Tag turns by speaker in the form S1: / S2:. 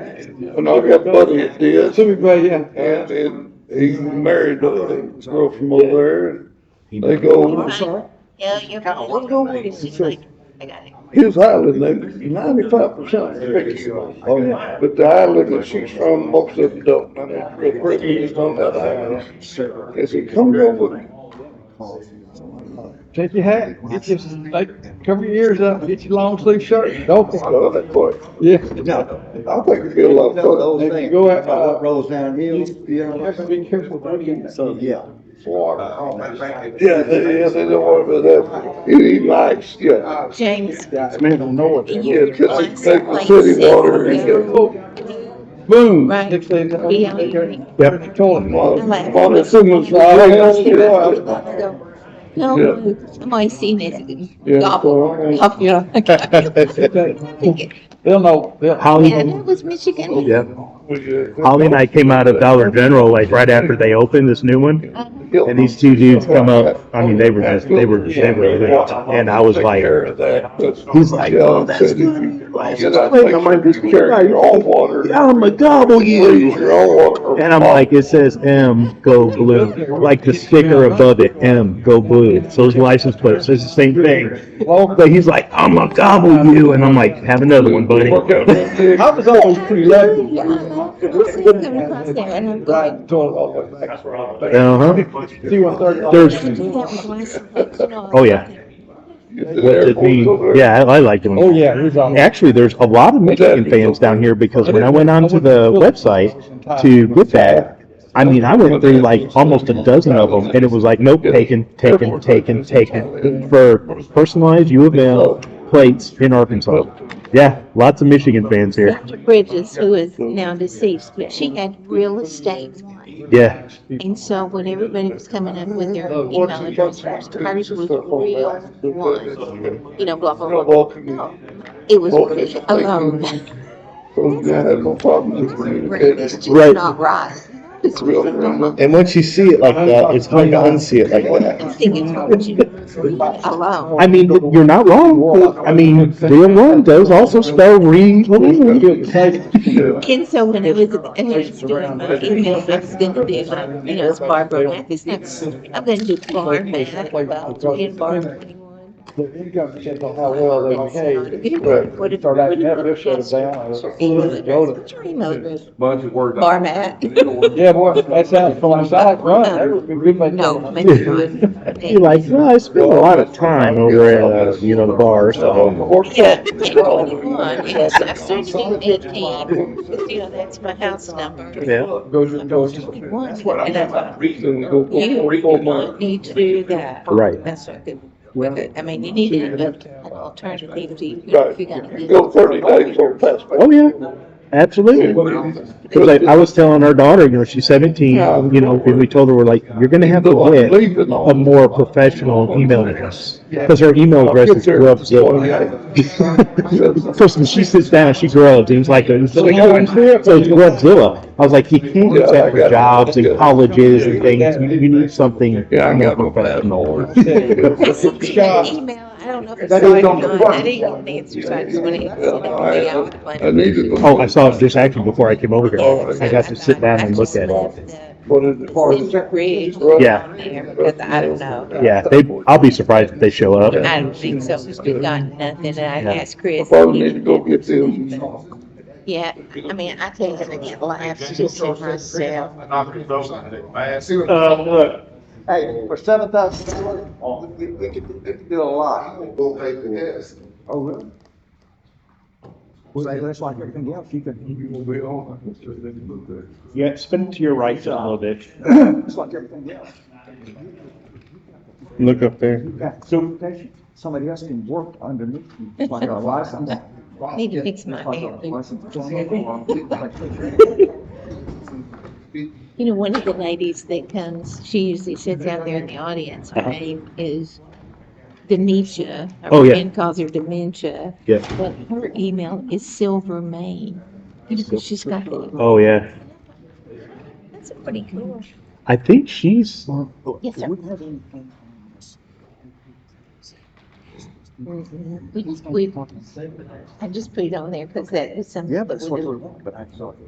S1: and, uh,
S2: And I got buddies that did,
S3: Everybody, yeah.
S2: and, and he married a girl from over there, and they
S3: I'm
S2: go,
S3: sorry.
S4: Yeah, you're.
S3: Kyle, what's going on with
S4: It's
S3: this
S4: like-
S3: thing?
S4: I got it.
S2: his island, they ninety-five percent fixed. But the island that she's from, most of them don't, and it's real pretty, it's on that island. As he comes over,
S3: Take your hat, get your, like, cover your ears up, get your long sleeve shirt, don't,
S2: I love that boy,
S3: yeah.
S5: No,
S2: I think it'd be a lot of
S5: no,
S2: fun,
S5: those
S3: If you
S5: things,
S3: go out-
S5: what rolls downhill, you
S3: You have to
S5: know,
S3: be careful what you eat.
S5: so, yeah.
S2: water.
S1: oh, matter of fact,
S2: Yeah, they, yeah, they don't want to, that, he'd be nice, yeah.
S4: James,
S3: Man, don't know what.
S2: Yeah,
S4: you
S2: just
S4: once,
S2: take the
S4: like
S2: city water and
S4: six,
S2: get a little
S3: Boom.
S4: Right.
S3: Next thing. uh,
S4: Yeah, you drink.
S3: Yep. Toilet.
S2: Well, well, as soon as I
S4: No, somebody seen
S3: Yeah.
S4: it, gobble, up your. Yeah,
S3: They'll know, they'll.
S4: that was Michigan.
S6: Yeah, Holly and I came out of Dollar General like right after they opened this new one, and these two dudes come up. I mean, they were just they were they were, and I was like, he's like, oh, that's good.
S2: I might just carry your own water.
S6: I'm a gobble
S2: Please,
S6: you.
S2: your own water.
S6: And I'm like, it says M, go blue, like the sticker above it, M, go blue. So his license plate says the same thing. But he's like, I'm gonna gobble you, and I'm like, have another one, buddy.
S2: Work out that big.
S3: I was always pretty lucky.
S4: Yeah, I was coming across there and I'm going,
S6: Uh huh.
S3: See one thirty.
S6: There's-
S4: that was my selection on
S6: Oh, yeah. What did we? Yeah, I, I liked him.
S3: Oh, yeah, he's on.
S6: Actually, there's a lot of Michigan fans down here because when I went onto the website to get that, I mean, I went through like almost a dozen of them, and it was like, nope, taken, taken, taken, taken for personalized U of L plates in Arkansas. Yeah, lots of Michigan fans here.
S4: Dr. Bridges, who is now deceased, but she had real estate one.
S6: Yeah,
S4: And so when everybody was coming in with their email address, hers was real one, you know, blah, blah, blah. No, it was really alone.
S6: mm,
S2: So, Oh, yeah, I had no problem with
S4: It's
S2: communicating.
S4: just
S6: Right.
S4: not right.
S2: It's real, man.
S7: And once you see it like that, it's hard to unsee it like
S4: I
S7: that.
S4: think it's what you leave alone.
S6: I mean, you're not wrong. I mean, real one does also spell re.
S2: Yeah.
S4: And so when it was, and when it's doing my email, it's gonna be like, you know, it's Barbara Mathis, next. I'm gonna do Barb Math, well, in Barb twenty-one. What if, what if you look at email address, what's your email address?
S1: bunch of words.
S4: Bar mat.
S3: Yeah, boy, that sounds from the side, run, that would be good, but.
S4: No, maybe not.
S6: You're like, well, I spend a lot of time over at, uh, you know, the bar, so.
S4: Yeah, twenty-one, yes, I started in eighteen, you know, that's my house number.
S6: Yeah.
S3: Goes with those.
S4: Twenty-one,
S1: That's what I
S4: and I
S1: got
S4: thought,
S1: my reason to go
S4: you
S1: for
S4: do
S1: four months.
S4: not need to do that.
S6: Right.
S4: That's what I could, with it. I mean, you needed an alternative, to, you know, if
S2: Right,
S4: you're gonna
S2: you
S4: be.
S2: go thirty days on fastback.
S6: Oh, yeah, absolutely. Cause I, I was telling our daughter, you know, she's seventeen, you know, and we told her, we're like, you're gonna have to get
S2: Leaving
S6: a
S2: on.
S6: more professional email address. Cause her email address is grubs. First, when she sits down, she grubs, and it's like, a- so it's grubzilla. I was like, you can't do that for jobs and colleges and things, you you need something.
S2: Yeah, I got my
S6: more professional.
S4: That's the thing, that email, I don't know if it's.
S2: That is on the
S4: signed or not. I
S2: front.
S4: didn't even answer signs when it was.
S2: Yeah, I- I needed them.
S6: Oh, I saw it just actually before I came over
S4: Oh,
S6: here. I got to sit down and look at it.
S2: What is it?
S4: Silver Bridge.
S6: Yeah.
S4: on there, Because I don't know,
S6: Yeah, they, I'll be surprised if they show up.
S4: I don't think so, because we got nothing, and I
S6: Yeah.
S4: asked Chris.
S2: Probably need to go get them.
S4: Yeah, I mean, I think I get laughs just in myself.
S1: Uh,
S5: Hey, for seven thousand, we, we could, we could do a lot.
S3: Oh, really? Well, that's like everything else, you can,
S6: Yeah, spin to your right a little bit.
S3: it's like everything else,
S7: Look up there.
S3: you got certification, somebody else can work underneath you, It's like a license.
S4: Need to fix my
S3: Like a
S4: hair.
S3: license.
S4: You know, one of the ladies that comes, she usually sits out there in the audience. Her name is Denisha. Her
S6: Oh, yeah.
S4: friend calls her dementia.
S6: Yeah.
S4: But her email is Silver Main. She's got the,
S6: Oh, yeah.
S4: that's pretty cool.
S6: I think she's,
S4: Yes, sir.
S5: Mm-hmm. We, we, I just put it on there because that was something.
S4: Yeah,
S5: that
S4: but
S5: we
S4: that's what,
S5: do.
S4: but I saw it.